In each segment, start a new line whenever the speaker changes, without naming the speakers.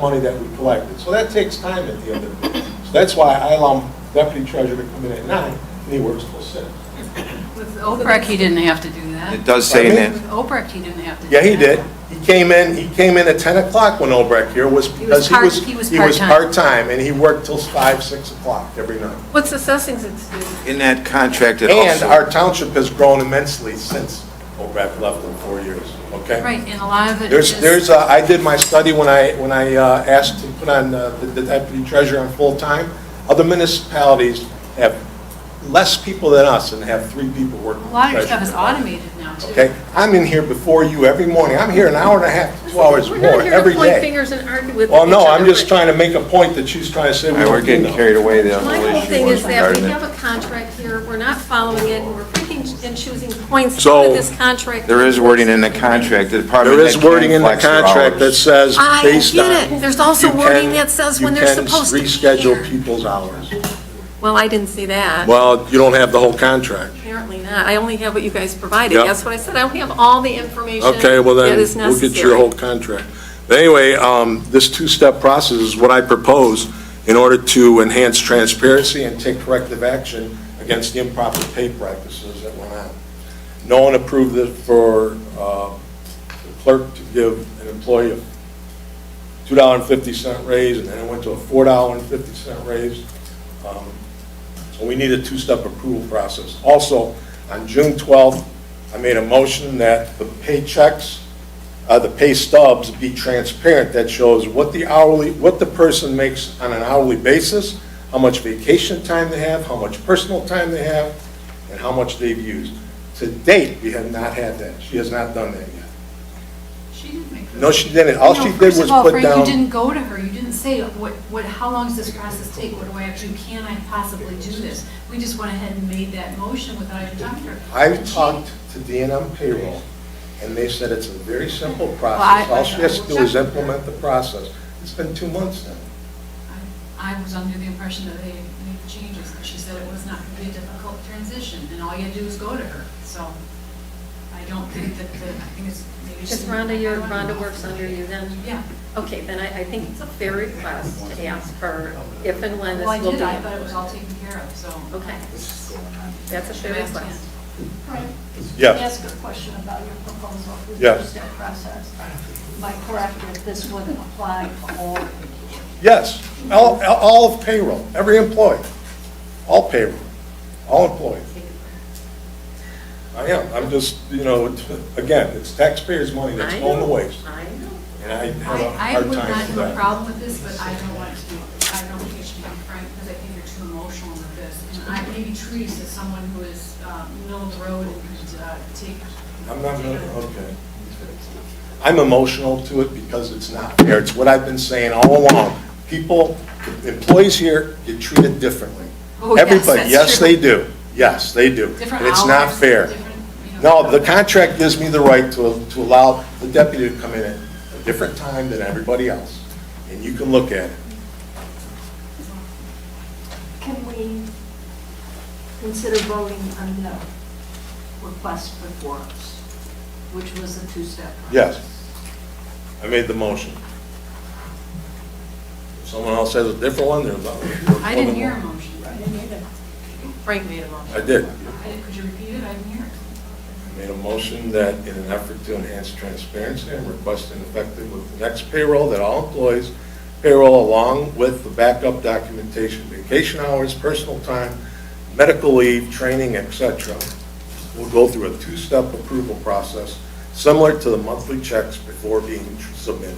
money that we collected. So that takes time at the end of the day. So that's why I allow deputy treasurer to come in at nine, and he works till six.
With Oprek, he didn't have to do that.
It does say
Pardon
With
that,
Oprek, he didn't have to do
Yeah,
that.
he did. He came in, he came in at 10 o'clock when Obrecht here was,
was
because he
part-
was,
he was
he was
part-time.
part-time, and he worked till 5, 6 o'clock every night.
What's assessing it to do?
in that contract, it
And our
also,
township has grown immensely since Obrecht left in four years, okay?
Right, and a lot of it is...
There's, there's, uh, I did my study when I, when I uh, asked to put on uh, the the deputy treasurer on full-time. Other municipalities have less people than us and have three people working.
A lot of your stuff is
treasurer.
automated now, too.
Okay, I'm in here before you every morning. I'm here an hour and a half, two hours
We're
more
not here
every
to point
day.
fingers and argue with each other.
Well, no, I'm just
but
trying to make a point that she's trying to say. we
All right, we're
don't do
getting
nothing.
carried away, the whole
My whole
issue
thing
was
is that
regarding
we have
it.
a contract here, we're not following it, and we're picking and choosing points
So-
out of this contract.
There is wording in the contract, the department
There
head
is wording in
can
the
flex their
contract that
hours.
says
I
based on.
get it. There's also
you
wording
can-
that says
you
when they're
can
supposed to be here.
Reschedule people's hours.
Well, I didn't see that.
Well, you don't have the whole contract.
Apparently not. I only have what you guys provided.
Yep.
That's what I said. I don't have all the information
Okay, well then,
that is
we'll get your
necessary.
whole contract. But anyway, um, this two-step process is what I propose in order to enhance transparency and take corrective action against the improper pay practices that went on. No one approved it for uh, the clerk to give an employee a $2.50 raise, and then it went to a $4.50 raise. Um, so we need a two-step approval process. Also, on June 12th, I made a motion that the paychecks, uh, the pay stubs be transparent. That shows what the hourly, what the person makes on an hourly basis, how much vacation time they have, how much personal time they have, and how much they've used. To date, we have not had that. She has not done that yet.
She didn't make those.
No, she didn't. All she
No,
did was
First of all,
put
Frank, you
down,
didn't go to her, you didn't say, what, what, how long does this process take, what do I have to, do? can I possibly do this? We just went ahead and made that motion without even talking to her.
I
She-
talked to DNM payroll, and they said it's a very simple
I-
process. All she has to do is implement the process. It's been two months now.
I I was under the impression that they made the changes, but she said it was not going to be a difficult transition, and all you had to do was go to her, so I don't think that, the- I think it's maybe.
Is
she-
Rhonda your, Rhonda works under you then?
Yeah.
Okay, then I, I think it's a fair request to ask for if and when this
Well,
will
I
be.
did, I thought it was all taken care of, so.
Okay, that's a fair
Should I ask
request.
Ann?
Frank,
Yes.
Let me ask a question about your proposal for the
Yes.
two-step process. Am I correct that this wouldn't apply to all
Yes, all, all of payroll, every employee, all payroll, all employees. I am, I'm just, you know, it's- again, it's taxpayers' money that's
I
going to
know,
waste,
I know.
and I have a
I, I
hard
would not
time with
have a
that.
problem with this, but I don't want it to be, I don't think it should be frank, because I think you're too emotional with this. And I, maybe Therese is someone who is, um, middle of the road and could, uh, take.
I'm not, gonna- okay. I'm emotional to it because it's not fair, it's what I've been saying all along. People, employees here get treated differently.
Oh, yes,
Everybody,
that's
yes,
true.
they do, yes, they do.
Different
And it's not
hours,
fair.
different, you know.
No, the contract gives me the right to, to allow the deputy to come in at a different time than everybody else, and you can look at it.
Can we consider voting on the request before us, which was a two-step? process?
Yes. I made the motion. If someone else has a different one, there's.
I didn't hear a motion.
I didn't either.
Frank made a motion.
I did.
I didn't- Could you repeat it? I didn't hear it.
I made a motion that in an effort to enhance transparency, I'm requesting effective with the next payroll that all employees payroll along with the backup documentation, vacation hours, personal time, medical leave, training, et cetera, will go through a two-step approval process similar to the monthly checks before being submitted.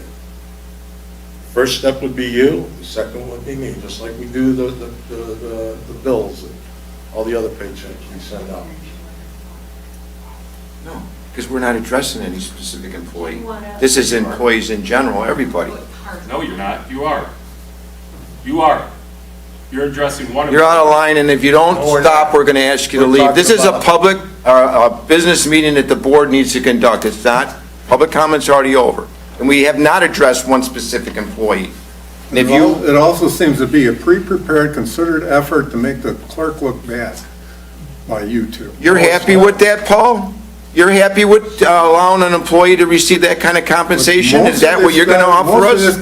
First step would be you, the second would be me, just like we do the, the, the- the the bills and all the other paychecks we send out.
No, because we're not addressing any specific employee.
You wanna-
This is employees in general, everybody.
No, you're not. You are. You are. You're addressing one of.
You're out of line, and if you don't
No, we're not.
stop, we're going to ask you to
We're
leave.
talking
This is a
about-
public, uh, a business meeting that the board needs to conduct. It's not, public comment's already over. And we have not addressed one specific employee. And if
It
you,
al- It also seems to be a pre-prepared, considered effort to make the clerk look bad by you two.
You're happy with that, Paul? You're happy with uh, allowing an employee to receive that kind of compensation? Is that what you're going to offer us?
Most of this